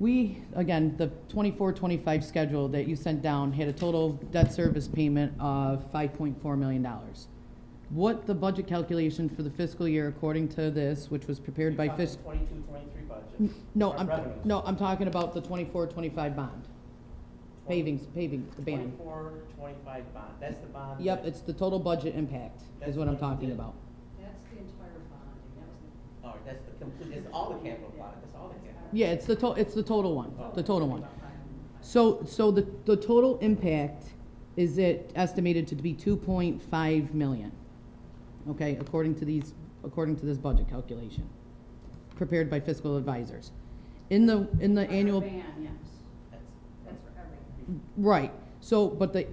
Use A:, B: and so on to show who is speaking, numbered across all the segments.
A: We, again, the 24-25 schedule that you sent down had a total debt service payment of five point four million dollars. What the budget calculation for the fiscal year according to this, which was prepared by
B: You're talking
A: fiscal.
B: 22, 23 budget.
A: No,
B: Or
A: I'm,
B: revenues.
A: no, I'm talking about the 24-25 bond, paving, paving, the band.
B: 24, 25 bond, that's the bond.
A: Yep,
B: that-
A: it's the total budget impact is
B: That's
A: what I'm
B: what you
A: talking
B: did.
A: about.
C: That's the entire bond, and that was the.
B: All right, that's the complete, it's all the capital bond, that's all the capital.
A: Yeah, it's the to, it's the total one,
B: Oh.
A: the total one.
C: final-
A: So, so the, the total impact is it estimated to be two point five million, okay, according to these, according to this budget calculation, prepared by fiscal advisors. In the, in the
C: Our
A: annual,
C: Ban, yes,
B: That's-
C: that's for everything.
A: right, so, but the,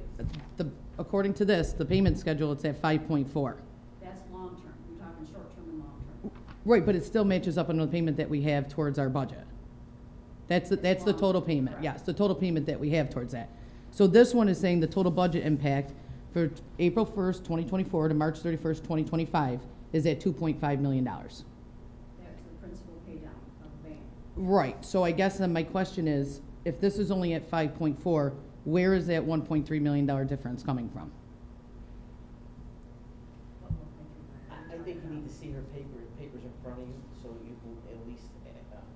A: the, according to this, the payment schedule, it's at five point four.
C: That's long-term, we're talking short-term and long-term.
A: Right, but it still matches up on the payment that we have towards our budget. That's, the- that's the total payment,
C: Correct.
A: yes, the total payment that we have towards that. So this one is saying the total budget impact for April first, twenty twenty-four to March thirty-first, twenty twenty-five is at two point five million dollars.
C: That's the principal pay down of the ban.
A: Right, so I guess then my question is, if this is only at five point four, where is that one point three million dollar difference coming from?
C: What we're thinking
B: I,
C: about.
B: I think you need to see her paper, papers in front of you, so you can at least, uh,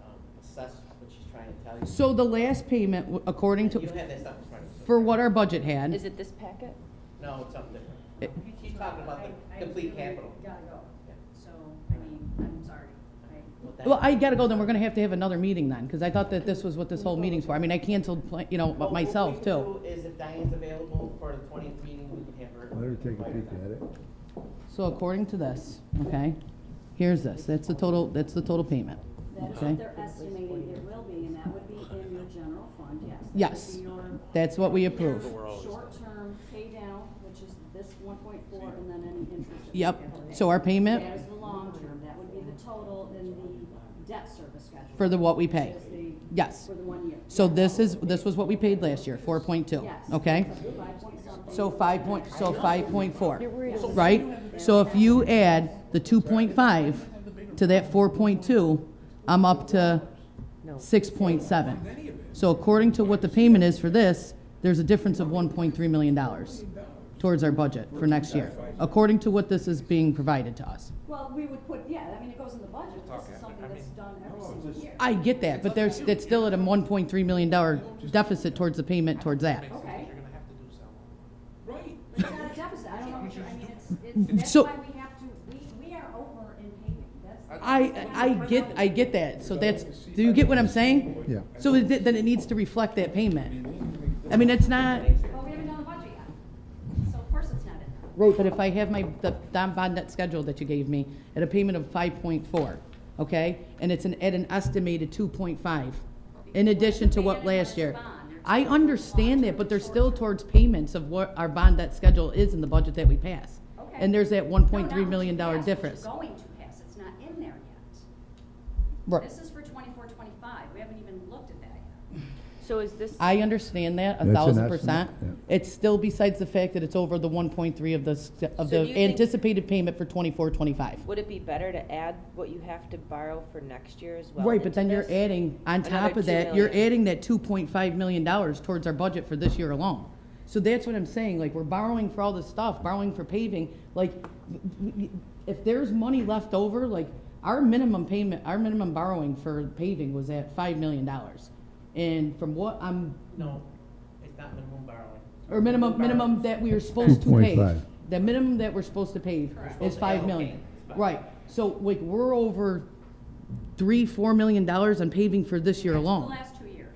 B: um, assess what she's trying to tell you.
A: So the last payment, w- according
B: You don't
A: to,
B: have that stuff in front of you. so-
A: for what our budget had.
D: Is it this packet?
B: No, it's something different.
A: it-
B: She's talking about the
C: I- I
B: complete
C: really
B: capital.
C: Gotta go,
B: Yeah.
C: so, I mean, I'm sorry, I.
B: Well, that-
A: Well, I gotta go, then we're gonna have to have another meeting then, because I thought that this was what this whole meeting's for. I mean, I canceled, pla- you know,
B: Well, what we
A: myself
B: can
A: too.
B: do Is if Diane's available for the twentieth meeting, we can have her.
E: Let her take a peek at it.
A: So according to this, okay, here's this, that's the total, that's the total payment,
C: That is
A: Okay.
C: what they're estimating it will be, and that would be in your general fund, yes. That would
A: Yes.
C: be your
A: that's what we approve.
C: Short-term pay down, which is this one point four, and then any interest. that we
A: Yep,
C: have to
A: so our
C: pay. That is
A: payment
C: the long-term, that would be the total in the debt service schedule.
A: for the what we pay,
C: Which is the-
A: yes.
C: For the one year.
A: So this is, this was what we paid last year, four point two,
C: Yes.
A: okay?
C: Five point something.
A: So five point, so five point four,
D: is-
A: right? So if you add the two point five to that four point two, I'm up to six point seven. So according to what the payment is for this, there's a difference of one point three million dollars towards our budget for next year, according to what this is being provided to us.
C: Well, we would put, yeah, I mean, it goes in the budget, this is something that's done every single year.
A: I get that, but there's, that's still at a one point three million dollar deficit towards the payment towards that.
C: Okay.
F: You're gonna have to do something.
C: It's not a deficit, I don't know, what you're- I mean, it's, it's, that's
A: So-
C: why we have to, we, we are over in payment, that's.
A: I, I get, I get that, so that's, do you get what I'm saying?
E: Yeah.
A: So is it- then it needs to reflect that payment. I mean, it's not,
C: Well, we haven't done the budget yet, so of course it's not in there.
A: but if I have my, the Don Bond net schedule that you gave me at a payment of five point four, okay? And it's an, at an estimated two point five, in addition to what last year. I understand that, but they're still towards payments of what our bond debt schedule is in the budget that we pass.
C: Okay.
A: And there's that one point
C: No,
A: three
C: not
A: million
C: what you
A: dollar
C: passed, what
A: difference.
C: you're going to pass, it's not in there yet.
A: Right.
C: This is for twenty-four, twenty-five, we haven't even looked at that yet.
D: So is this,
A: I understand that,
E: That's
A: a
E: an
A: thousand
E: estimate,
A: percent.
E: yeah.
A: It's still besides the fact that it's over the one point three of the, s- of
D: So do
A: the
D: you think-
A: anticipated payment for twenty-four, twenty-five.
D: would it be better to add what you have to borrow for next year as well?
A: Right, but
D: into
A: then you're
D: this?
A: adding, on top
D: Another
A: of
D: two
A: that, you're
D: million.
A: adding that two point five million dollars towards our budget for this year alone. So that's what I'm saying, like, we're borrowing for all this stuff, borrowing for paving, like, if there's money left over, like, our minimum payment, our minimum borrowing for paving was at five million dollars. And from what I'm
B: No, it's not minimum borrowing.
A: Or minimum, minimum that we are supposed to pay.
E: 2.5.
A: The minimum that we're supposed to pay is
B: supposed to
A: five
B: allocate
A: million.
B: is five.
A: Right, so like, we're over three, four million dollars on paving for this year
C: That's
A: alone.
C: The last two years.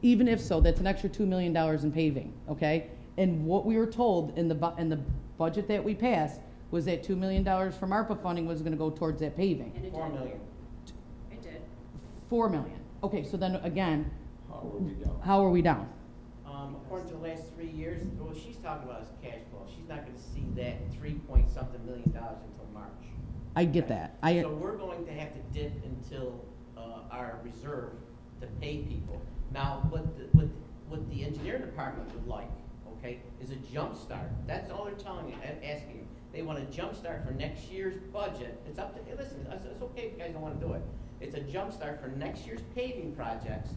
A: Even if so, that's an extra two million dollars in paving, okay? And what we were told in the bu, in the budget that we passed was that two million dollars from ARPA funding was gonna go towards that paving.
C: and it
B: Four
C: did.
B: million.
C: It did.
A: Four million. Okay, so then again,
G: How are we down?
A: how are we down?
B: Um, according to the last three years, what she's talking about is cash flow. She's not gonna see that three point something million dollars until March.
A: I get that. I,
B: So we're going to have to dip until, uh, our reserve to pay people. Now, what, the- what, what the engineer department would like, okay, is a jump start. That's all they're telling you, a- asking you. They want a jump start for next year's budget. It's up to, hey, listen, it's, it's okay if you guys don't wanna do it. It's a jump start for next year's paving projects